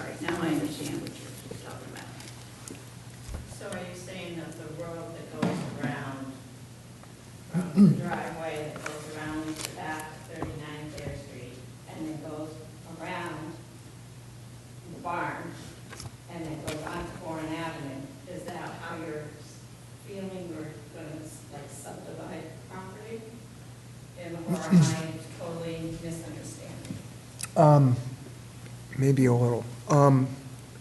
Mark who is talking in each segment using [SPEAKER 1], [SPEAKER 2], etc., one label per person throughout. [SPEAKER 1] I understand what you're talking about.
[SPEAKER 2] So are you saying that the road that goes around, from the driveway that goes around the back of 39 Fair Street, and then goes around the barn, and then goes on to Warren Avenue, is that how you're feeling we're gonna like subdivide property? And or am I totally misunderstanding?
[SPEAKER 3] Um, Maybe a little. Um,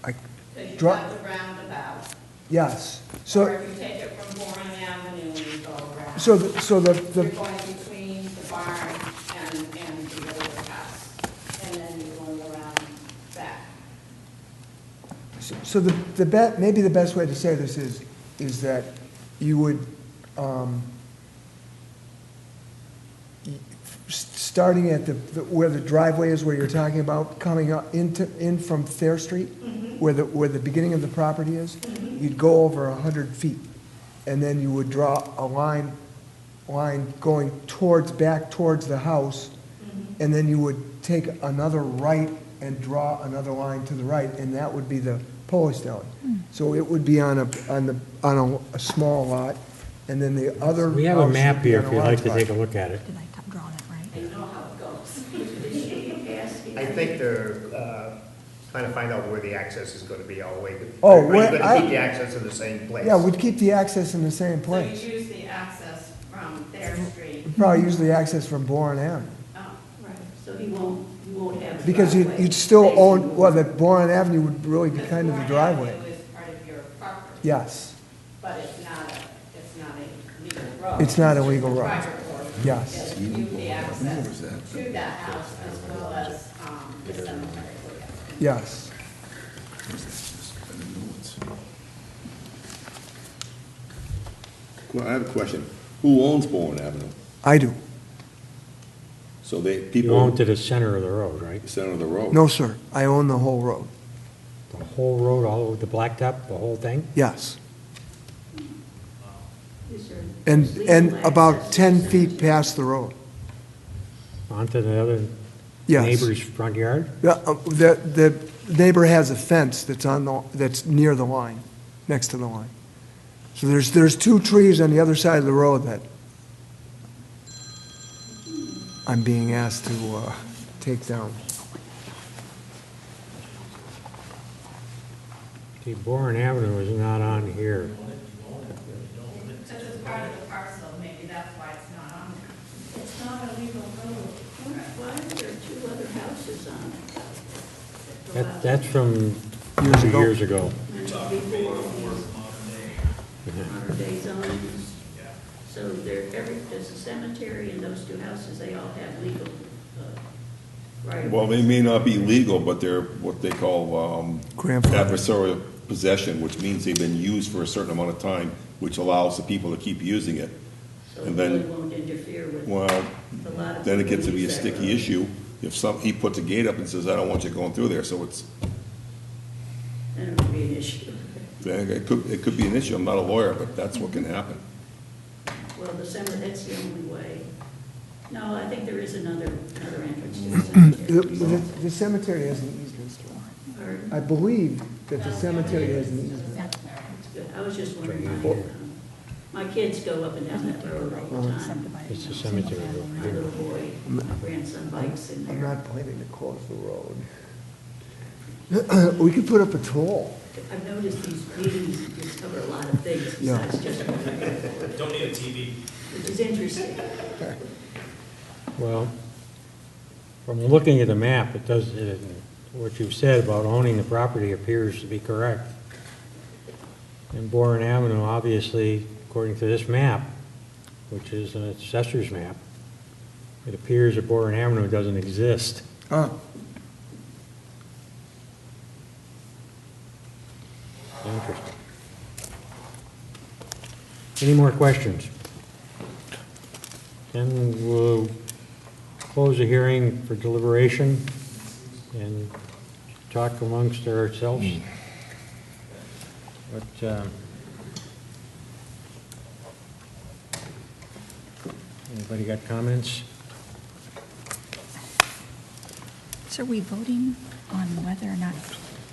[SPEAKER 3] I,
[SPEAKER 2] Because you've
[SPEAKER 3] Dri-
[SPEAKER 2] got the roundabout,
[SPEAKER 3] yes,
[SPEAKER 2] or
[SPEAKER 3] so,
[SPEAKER 2] if you take it from Warren Avenue and you go around.
[SPEAKER 3] so, the- so the,
[SPEAKER 2] You're
[SPEAKER 3] the
[SPEAKER 2] going between the barn and, and the old house, and then you're going around back.
[SPEAKER 3] so the, the be, maybe the best way to say this is, is that you would, um, y- s- starting at the, the- where the driveway is, where you're talking about, coming up into, in from Fair Street, where the, where the beginning of the property is, you'd go over a hundred feet. And then you would draw a line, line going towards, back towards the house. And then you would take another right and draw another line to the right, and that would be the Polish Deli. So it would be on a, on the, on a, a small lot, and then the other.
[SPEAKER 4] We have a
[SPEAKER 3] house would
[SPEAKER 4] map
[SPEAKER 3] be
[SPEAKER 4] here
[SPEAKER 3] on a
[SPEAKER 4] if you'd
[SPEAKER 3] large
[SPEAKER 4] like to
[SPEAKER 3] lot.
[SPEAKER 4] take a look at it.
[SPEAKER 5] Did I top draw that right?
[SPEAKER 1] Is she asking?
[SPEAKER 6] I think they're uh, trying to find out where the access is going to be all the way. to-
[SPEAKER 3] Oh,
[SPEAKER 6] Are you
[SPEAKER 3] where-
[SPEAKER 6] going to
[SPEAKER 3] I-
[SPEAKER 6] keep the access in the same place?
[SPEAKER 3] Yeah, we'd keep the access in the same
[SPEAKER 2] So
[SPEAKER 3] place.
[SPEAKER 2] you use the access from Thayer Street.
[SPEAKER 3] Probably use the access from Bourne Avenue,
[SPEAKER 2] Oh,
[SPEAKER 1] Right, so he won't, you won't have. a
[SPEAKER 3] because you'd,
[SPEAKER 1] driveway
[SPEAKER 3] you'd still
[SPEAKER 1] facing
[SPEAKER 3] own,
[SPEAKER 1] the
[SPEAKER 3] well,
[SPEAKER 1] wall.
[SPEAKER 3] that Bourne Avenue would really be
[SPEAKER 2] because
[SPEAKER 3] kind of the
[SPEAKER 2] Warren
[SPEAKER 3] driveway.
[SPEAKER 2] Avenue is part of your property.
[SPEAKER 3] Yes,
[SPEAKER 2] But it's not a, it's not a legal road.
[SPEAKER 3] It's not a legal road.
[SPEAKER 2] Private road.
[SPEAKER 3] Yes.
[SPEAKER 2] You have the access to that house as well as, um, the cemetery.
[SPEAKER 3] yes.
[SPEAKER 7] Well, I have a question. Who owns Bowen Avenue?
[SPEAKER 3] I do.
[SPEAKER 7] So they,
[SPEAKER 4] You own
[SPEAKER 7] people,
[SPEAKER 4] to the center of the road, right?
[SPEAKER 7] center of the road?
[SPEAKER 3] No, sir, I own the whole road.
[SPEAKER 4] The whole road, all over the blacktop, the whole thing?
[SPEAKER 3] Yes.
[SPEAKER 1] Is there
[SPEAKER 3] And,
[SPEAKER 1] legal
[SPEAKER 3] and about
[SPEAKER 1] access?
[SPEAKER 3] 10 feet past the road.
[SPEAKER 4] Onto the other
[SPEAKER 3] Yes.
[SPEAKER 4] neighbor's front yard?
[SPEAKER 3] The, uh, the the neighbor has a fence that's on the, that's near the line, next to the line. So there's, there's two trees on the other side of the road that I'm being asked to uh, take down.
[SPEAKER 4] See, Boren Avenue is not on here.
[SPEAKER 2] Because it's part of the parcel, maybe that's why it's not on there.
[SPEAKER 1] It's not a legal road. Why are there two other houses on it?
[SPEAKER 4] That, that's from
[SPEAKER 3] Years
[SPEAKER 4] two
[SPEAKER 3] ago.
[SPEAKER 4] years ago.
[SPEAKER 1] Modern day zones. So there, every, there's a cemetery and those two houses, they all have legal, uh, right.
[SPEAKER 7] Well, they may not be legal, but they're what they call um,
[SPEAKER 3] Grandfather.
[SPEAKER 7] adversarial possession, which means they've been used for a certain amount of time, which allows the people to keep using it.
[SPEAKER 1] So it
[SPEAKER 7] and then-
[SPEAKER 1] really won't interfere with a
[SPEAKER 7] Well,
[SPEAKER 1] lot of.
[SPEAKER 7] then it gets to be a
[SPEAKER 1] people use that road.
[SPEAKER 7] sticky issue. If some, he puts a gate up and says, I don't want you going through there, so it's,
[SPEAKER 1] Then it would be an issue.
[SPEAKER 7] it could, it could be an issue. I'm not a lawyer, but that's what can happen.
[SPEAKER 1] Well, the cemetery, that's the only way. No, I think there is another, another entrance to the cemetery.
[SPEAKER 3] The- The the cemetery has an easement.
[SPEAKER 1] Pardon?
[SPEAKER 3] I believe that the cemetery has an easement.
[SPEAKER 1] That's good. I was just wondering. why, um, My kids go up and down that road all the time.
[SPEAKER 4] It's a cemetery road.
[SPEAKER 1] My little boy, my grandson bikes in
[SPEAKER 3] I'm
[SPEAKER 1] there.
[SPEAKER 3] not planning to close the road. We could put up a toll.
[SPEAKER 1] I've noticed these meetings just cover a lot of things
[SPEAKER 3] Yeah.
[SPEAKER 1] besides just. Don't need a TV. Which is interesting.
[SPEAKER 4] Well, from looking at the map, it does, it- what you've said about owning the property appears to be correct. And Boren Avenue, obviously, according to this map, which is an assessor's map, it appears that Boren Avenue doesn't exist.
[SPEAKER 3] Ah,
[SPEAKER 4] Interesting. Any more questions? Then we'll close the hearing for deliberation and talk amongst ourselves. But, Hmm. um, anybody got comments?
[SPEAKER 5] So are we voting on whether or not